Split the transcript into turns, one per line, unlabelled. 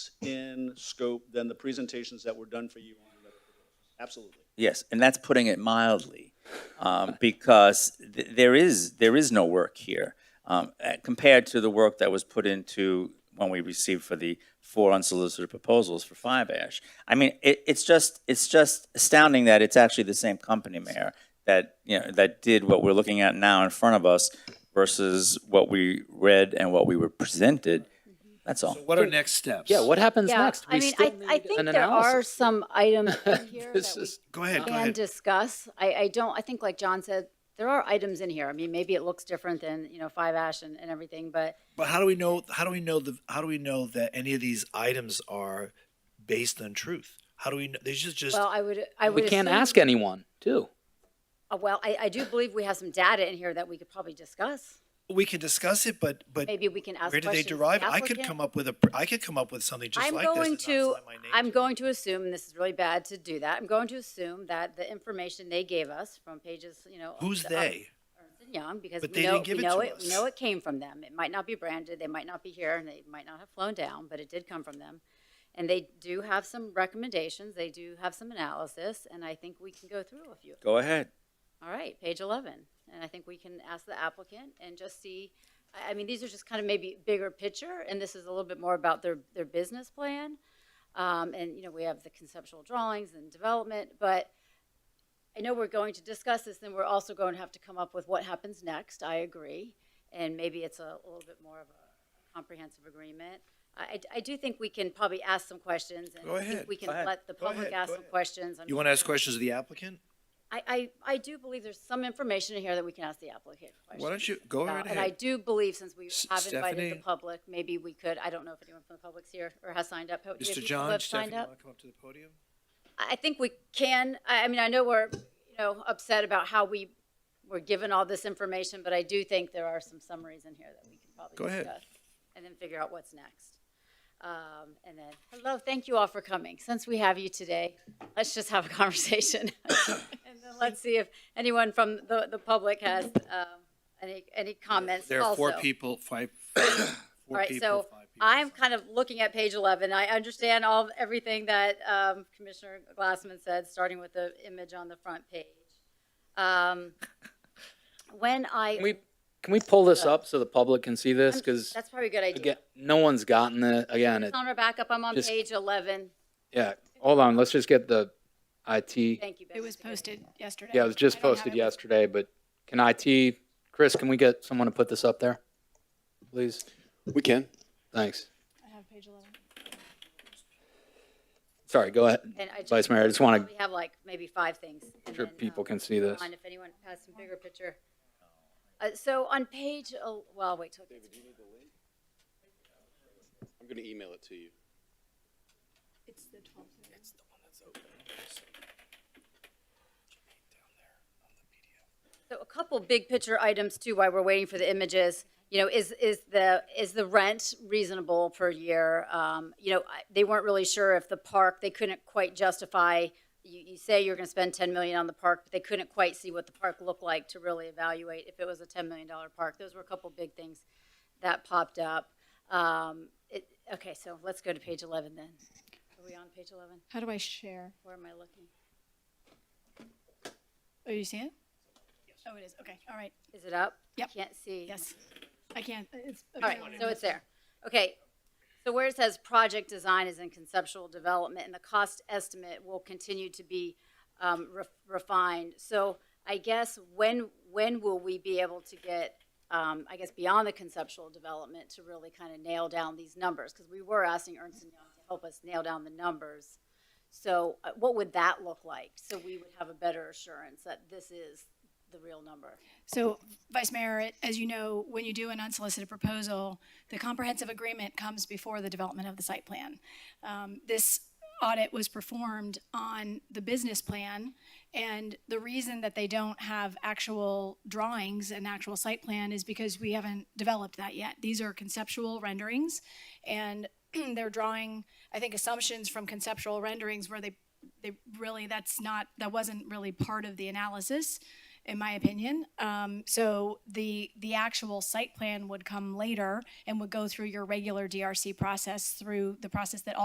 in scope than the presentations that were done for you on the other proposals. Absolutely.
Yes, and that's putting it mildly, um, because th- there is, there is no work here um, uh, compared to the work that was put into when we received for the four unsolicited proposals for Five Ash. I mean, it, it's just, it's just astounding that it's actually the same company, Mayor, that, you know, that did what we're looking at now in front of us versus what we read and what we were presented. That's all.
What are next steps?
Yeah, what happens
Yeah,
next?
I
We
mean,
still
I, I
need
think
an
there are
analysis.
some items in here that
This
we
is-
Go ahead, go
can
ahead.
discuss. I, I don't, I think like John said, there are items in here. I mean, maybe it looks different than, you know, Five Ash and, and everything, but
But how do we know, how do we know the, how do we know that any of these items are based on truth? How do we, know? there's just, just,
well, I would, I would.
We can't
assume-
ask anyone, too.
Uh, Well, I, I do believe we have some data in here that we could probably discuss.
we can discuss it, but, but
Maybe we can ask
where
questions.
did they
to the
derive? I could
applicant.
come up with a, I could come up with something just
I'm
like this.
going
and not
to,
sign my name
I'm
to it.
going to assume, and this is really bad to do that, I'm going to assume that the information they gave us from pages, you know. um,
Who's
up-
they?
Ernst and Young, because
But
we
they
know,
didn't
we
give it
know
to
it, we
us.
know it came from them. It might not be branded, they might not be here, and they might not have flown down, but it did come from them. And they do have some recommendations, they do have some analysis, and I think we can go through a few.
Go ahead.
All right, page 11, and I think we can ask the applicant and just see, I, I mean, these are just kind of maybe bigger picture, and this is a little bit more about their, their business plan. Um, and, you know, we have the conceptual drawings and development, but I know we're going to discuss this, then we're also going to have to come up with what happens next, I agree. And maybe it's a little bit more of a comprehensive agreement. I, I- I do think we can probably ask some questions, and
Go
I think
ahead,
we can
go ahead,
let the
go
public
ahead,
ask
go
some
ahead.
questions. I'm
You want to ask
sure-
questions of the applicant?
I, I, I do believe there's some information in here that we can ask the applicant questions.
Why don't you go
about.
right
And I
ahead?
do believe since we
S-
have invited the
Stephanie?
public, maybe we could, I don't know if anyone from the public's here or has signed up. Do we have
Mr.
people who
John,
have
Stephanie,
signed
you
up?
want to come up to the podium?
I I think we can, I, I mean, I know we're, you know, upset about how we were given all this information, but I do think there are some summaries in here that we can
Go
probably
ahead.
discuss. And then figure out what's next. Um, and then, hello, thank you all for coming. Since we have you today, let's just have a conversation. And then let's see if anyone from the, the public has, um, any, any comments also.
There are four people, five, five-
All
four
right,
people,
so
five people.
I'm kind of looking at page 11. I understand all, everything that um, Commissioner Glassman said, starting with the image on the front page. Um, When
Can
I,
we, can we pull this up so the public can see this? Because,
that's probably a good idea.
again, no one's gotten it, again, it,
On our backup, I'm on
Just-
page 11.
yeah. Hold on, let's just get the IT.
Thank you.
It
Becky.
was posted yesterday.
Yeah, it was just
I don't have
posted
it with-
yesterday, but can IT, Chris, can we get someone to put this up there? Please?
We can.
Thanks.
I have page 11.
Sorry, go ahead,
And I just,
Vice Mayor. I just want
we have like maybe five things.
to,
and
sure
then,
people
um,
can see this.
on if anyone has some bigger picture. Uh, So on page, el- well, wait till. it gets-
I'm going to email it to you.
It's the 12th.
So a couple big picture items too, while we're waiting for the images, you know, is, is the, is the rent reasonable per year? Um, You know, I- they weren't really sure if the park, they couldn't quite justify, you, you say you're gonna spend ten million on the park, but they couldn't quite see what the park looked like to really evaluate if it was a ten million dollar park. Those were a couple big things that popped up. Um, it, okay, so let's go to page eleven then. Are we on page eleven?
How do I share?
Where am I looking?
Oh, you see it? Oh, it is. Okay. All right.
Is it up?
Yep.
Can't see.
Yes. I can't. It's.
All right, so it's there. Okay, so where it says project design is in conceptual development, and the cost estimate will continue to be um, re- refined. So I guess when, when will we be able to get, um, I guess, beyond the conceptual development to really kind of nail down these numbers? Because we were asking Ernst and Young to help us nail down the numbers. So uh, what would that look like? So we would have a better assurance that this is the real number.
So, Vice Mayor, it- as you know, when you do an unsolicited proposal, the comprehensive agreement comes before the development of the site plan. Um, This audit was performed on the business plan, and the reason that they don't have actual drawings and actual site plan is because we haven't developed that yet. These are conceptual renderings, and they're drawing, I think, assumptions from conceptual renderings where they, they really, that's not, that wasn't really part of the analysis in my opinion. Um, so the the actual site plan would come later and would go through your regular DRC process through the process that all